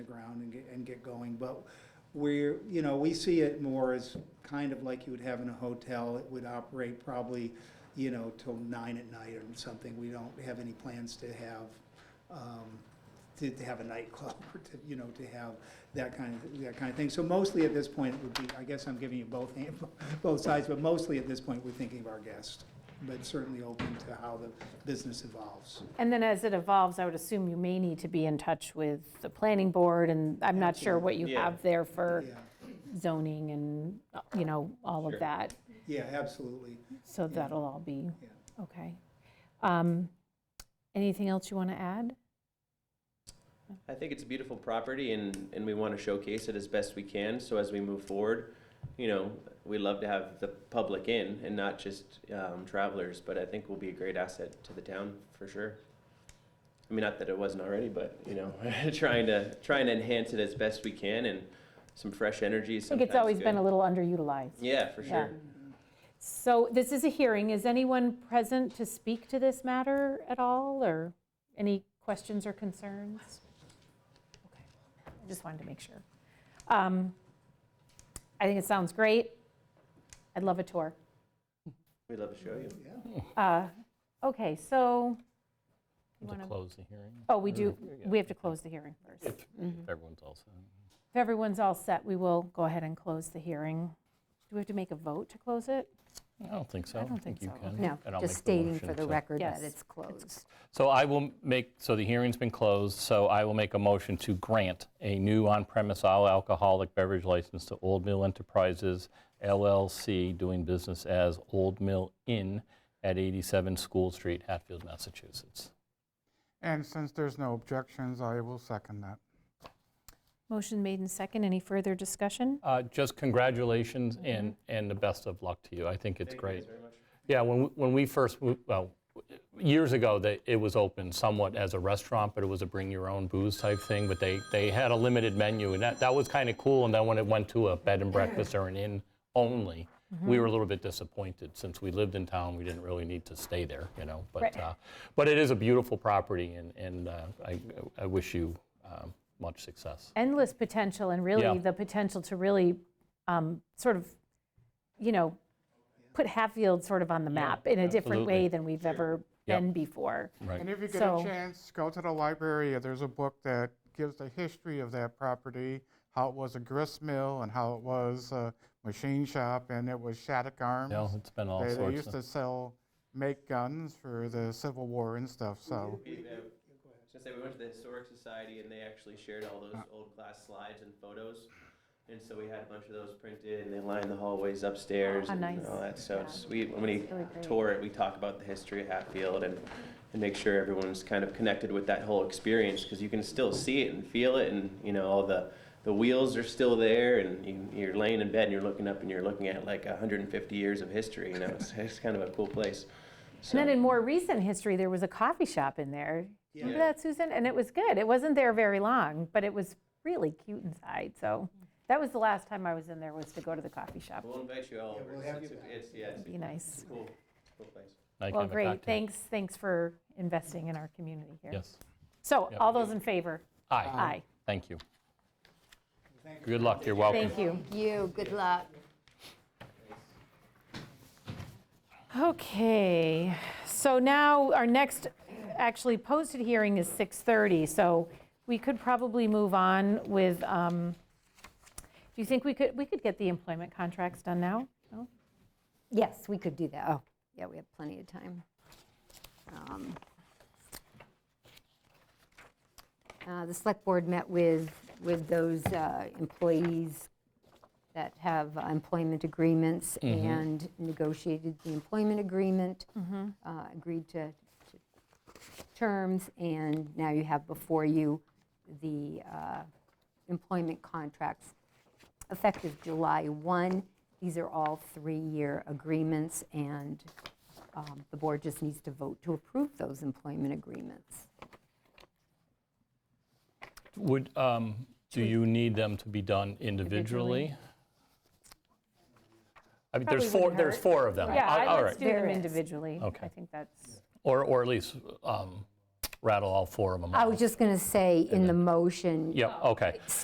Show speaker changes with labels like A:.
A: the ground and get, and get going, but we're, you know, we see it more as kind of like you would have in a hotel, it would operate probably, you know, till nine at night or something, we don't have any plans to have, um, to, to have a nightclub or to, you know, to have that kind of, that kind of thing. So mostly at this point, it would be, I guess I'm giving you both, hand- both sides, but mostly at this point, we're thinking of our guests, but certainly open to how the business evolves.
B: And then as it evolves, I would assume you may need to be in touch with the planning board, and I'm not sure what you
C: Yeah.
B: have there for
A: Yeah,
B: zoning and, uh, you know, all of
C: Sure.
B: that.
A: yeah, absolutely.
B: So that'll all be,
A: Yeah.
B: okay. Um, Anything else you want to add?
C: I think it's a beautiful property and, and we want to showcase it as best we can. So as we move forward, you know, we love to have the public in and not just um, travelers, but I think will be a great asset to the town for sure. I mean, not that it wasn't already, but you know, trying to trying to enhance it as best we can and some fresh energy.
B: I think it's always been a little underutilized.
C: yeah, for
B: Yeah.
C: sure.
B: So this is a hearing. Is anyone present to speak to this matter at all, or any questions or concerns? Okay, I just wanted to make sure. Um, I think it sounds great. I'd love a tour.
C: We'd love to show you.
B: Uh, Okay, so, You
D: To
B: wanna-
D: close the hearing,
B: oh, we do,
D: Yeah.
B: we have to close the hearing first. If
D: if everyone's all set.
B: everyone's all set, we will go ahead and close the hearing. Do we have to make a vote to close it?
D: I don't think so.
B: don't think so.
D: you can.
E: No,
D: And I'll make
E: just
D: the
E: stating
D: motion,
E: for the
D: so-
E: record
B: Yes.
E: that it's closed.
D: So I will make, so the hearing's been closed, so I will make a motion to grant a new on-premise all alcoholic beverage license to Old Mill Enterprises LLC, doing business as Old Mill Inn at 87 School Street, Hatfield, Massachusetts.
F: And since there's no objections, I will second that.
B: Motion made and second. Any further discussion?
D: Uh, Just congratulations and, and the best of luck to you. I think it's great. Yeah, when, we- when we first, w- well, years ago, they, it was open somewhat as a restaurant, but it was a bring your own booze type thing, but they, they had a limited menu, and that, that was kind of cool, and then when it went to a bed and breakfast or an inn only, we were a little bit disappointed, since we lived in town, we didn't really need to stay there, you know, but,
B: Right.
D: uh, but it is a beautiful property, and, and uh, I, I wish you um, much success.
B: endless potential and really
D: Yeah.
B: the potential to really um, sort of, you know, put Hatfield sort of on the map in a different way
D: absolutely.
B: than we've ever
D: Yep.
B: been before.
D: Right.
F: And if you get
B: So-
F: a chance, go to the library. There's a book that gives the history of that property, how it was a grist mill and how it was a machine shop, and it was Shattuck Arms.
D: No, it's been all
F: They- They
D: sorts
F: used
D: of.
F: to sell, make guns for the Civil War and stuff, so.
C: Since we went to the Historic Society and they actually shared all those old class slides and photos. And so we had a bunch of those printed and they lined the hallways upstairs
B: How
C: and
B: Oh, nice.
C: all that. So
B: Yeah.
C: it's- we, when we
B: Really great.
C: tour it, we talk about the history of Hatfield and, and make sure everyone's kind of connected with that whole experience because you can still see it and feel it and, you know, all the, the wheels are still there and you, you're laying in bed and you're looking up and you're looking at like 150 years of history, you know, it's, it's kind of a cool place.
B: And then
C: So-
B: in more recent history, there was a coffee shop in there. Remember
C: Yeah.
B: that, Susan? And it was good. It wasn't there very long, but it was really cute inside. So that was the last time I was in there was to go to the coffee shop.
C: We'll invite you all over.
A: we'll have
C: It's-
A: you
C: it's-
A: back.
C: It's, yeah, it's
B: Be nice.
C: a cool, cool place.
D: I can
B: Well,
D: have a
B: great.
D: cocktail.
B: Thanks, thanks for investing in our community here.
D: Yes.
B: So
D: Yeah.
B: all those in favor?
D: Aye.
B: Aye.
D: Thank you.
A: Thank you.
D: Good luck, you're welcome.
B: Thank you.
E: You, good luck.
B: Okay, so now our next actually posted hearing is 6:30, so we could probably move on with, um, do you think we could, we could get the employment contracts done now? No?
E: Yes, we could do that. Oh, yeah, we have plenty of time. Um, uh, The select board met with, with those uh, employees that have uh, employment agreements and negotiated the employment agreement, uh, agreed to to terms, and now you have before you the uh, employment contracts effective July 1. These are all three-year agreements, and um, the board just needs to vote to approve those employment agreements.
D: Would, um, do you need them to be done individually? I mean, there's
B: Probably
D: four,
B: wouldn't
D: there's
B: hurt.
D: four of them.
B: Yeah,
D: All-
B: I-
D: all
B: let's
D: right.
B: do them
E: There is.
B: individually. I
D: Okay.
B: think that's,
D: Or, or at least um, rattle all four of them
E: I
D: off.
E: was just going to say, in the motion,
D: Yeah, okay.